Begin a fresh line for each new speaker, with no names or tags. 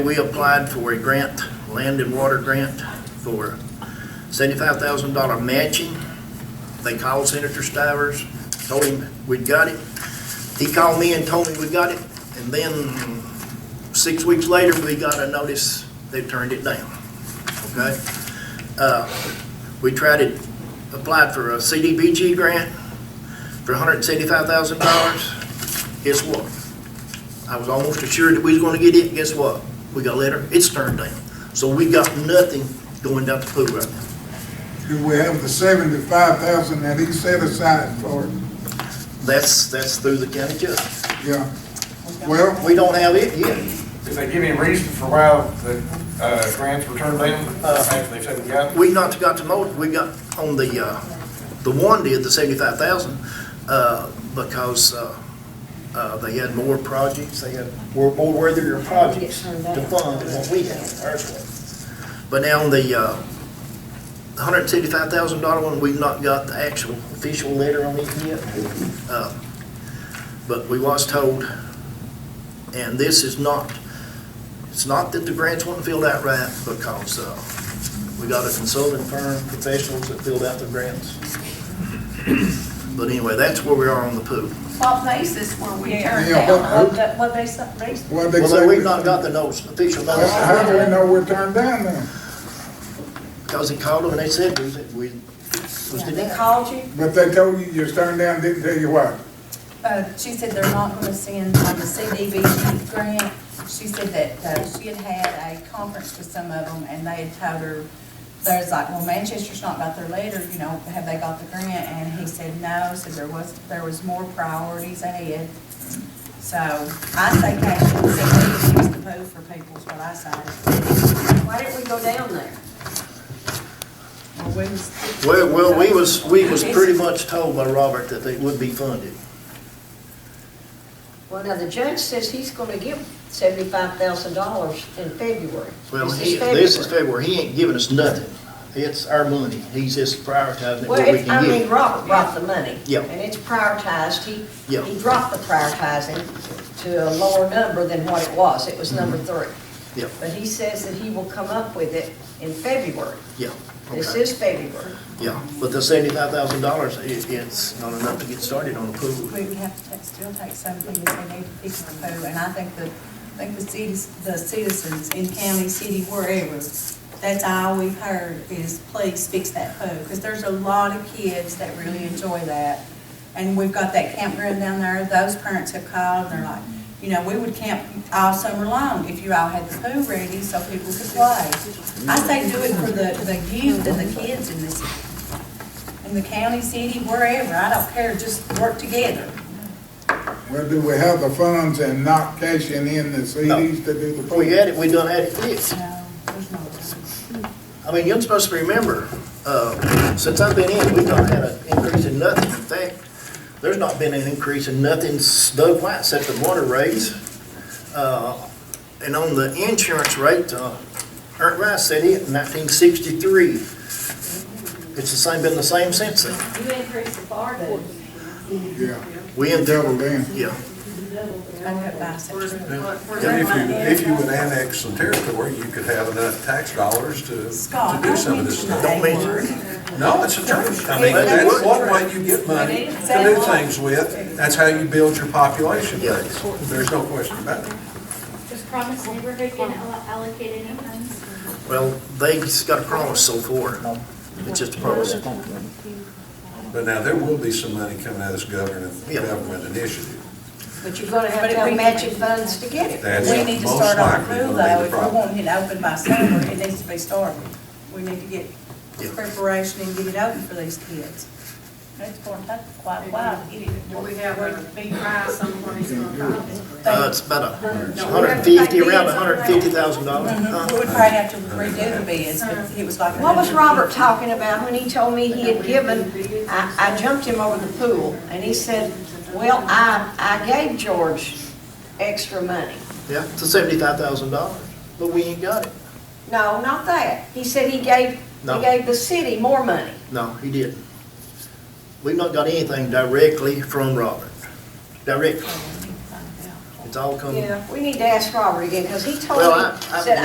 We applied for a grant, land and water grant, for seventy-five thousand dollar matching. They called Senator Stivers, told him we'd got it. He called me and told me we got it, and then six weeks later, we got a notice they turned it down, okay? Uh, We tried to, applied for a CDBG grant for hundred and seventy-five thousand dollars. Guess what? I was almost assured that we was gonna get it, guess what? We got a letter, it's turned down. So we got nothing going down the pool right now.
Do we have the seventy-five thousand that he set aside for, it?
That's, that's through the county judge.
yeah? Well,
We don't have it yet.
Did they give you a reason for why the uh, grants were turned down after they said we got them?
We not got to know, we got on the, uh, the one did, the seventy-five thousand, uh, because, uh, uh, they had more projects, they had, were more worthier projects to fund than what we had, ours was. But now on the, uh, hundred and seventy-five thousand dollar one, we've not got the actual official letter on it yet. Uh, But we was told, and this is not, it's not that the grants weren't filled out right, because, uh, we got a consulting firm, professionals that filled out the grants. But anyway, that's where we are on the pool.
What basis were we turned
Yeah,
down?
what-
What they, some reason,
what they
Well,
say?
we've not got the notice, official
Well, How do we
notice,
know we're turned down then?
because he called them and they said we, we was
they
denied.
called you,
But they told you you was turned down, didn't tell you why.
uh, she said they're not gonna send on the CDBG grant. She said that, uh, she had had a conference with some of them and they had told her, there's like, well, Manchester's not got their letter, you know, have they got the grant? And he said, no, said there was, there was more priorities ahead. So I say cash, we should use the vote for people is what I say.
Why didn't we go down there?
Well, we was-
Well, well, we was, we was pretty much told by Robert that they would be funded.
Well, now, the judge says he's gonna give seventy-five thousand dollars in February.
Well, he, this is February, he ain't giving us nothing. It's our money, he's just prioritizing it
Well,
where we
it- I
can get
mean,
it.
Robert brought the money.
Yeah.
And it's prioritized, he,
Yeah.
he dropped the prioritizing to a lower number than what it was, it was number
Mm-hmm.
three.
Yeah.
But he says that he will come up with it in February.
Yeah,
This
okay,
is February.
yeah. But the seventy-five thousand dollars, it, it's not enough to get started on the pool.
we would have to take- still take something if they need to fix the pole, and I think the, I think the cities, the citizens in county, city, wherever, that's all we've heard is, please fix that pole, because there's a lot of kids that really enjoy that. And we've got that campground down there, those parents have called, and they're like, you know, we would camp all summer long if you all had the pool ready so people could play. I say do it for the, the youth and the kids in this in the county, city, wherever, I don't care, just work together.
Well, do we have the funds and not cashing in the CDs to do the
If we
pool?
had it, we done had it fixed.
No, there's no time.
I mean, you're supposed to remember, uh, since I've been in, we've not had an increase in nothing. In fact, there's not been an increase in nothing, s- though, why, except the water rates. Uh, And on the insurance rate, uh, Art Rice said it in nineteen sixty-three. It's the same, been the same since then.
You increased the bar bill.
Yeah,
We in
double then.
Yeah,
I got bisexual.
And if you, if you would annex some territory, you could have enough tax dollars to, to
Scott,
do
don't
some of this
mention
stuff.
that
Don't mention
word.
No, it's a truth. I mean,
But
that's
it's-
one way you get money to do things with. That's how you build your population
Yeah.
base. There's no question about it.
Does Promise Neighborhood get allo- allocated any funds?
well, they just got a promise so far. It's just a promise.
But now, there will be some money coming out of this government,
Yeah.
government initiative.
But you're gonna have
But
to
if
have
we-
matching funds to get it.
That's
We need to
most
start on the
likely
pool
gonna be
though,
the
if we
problem.
want it open by summer, it needs to be started. We need to get
Yeah.
preparation and get it open for these kids. It's gonna take quite a while to get it.
Do we have a big prize somewhere he's gonna come?
Uh, it's about a hundred and fifty, around a hundred and fifty thousand dollars.
We would probably have to redo the bids, but it was like.
What was Robert talking about when he told me he had given, I, I jumped him over the pool, and he said, well, I, I gave George extra money.
Yeah, it's seventy-five thousand dollars, but we ain't got it.
No, not that. He said he gave,
No.
he gave the city more money.
No, he didn't. We've not got anything directly from Robert, directly. It's all coming.
We need to ask Robert again, because he told
Um, Well,
me,
I- I-
said,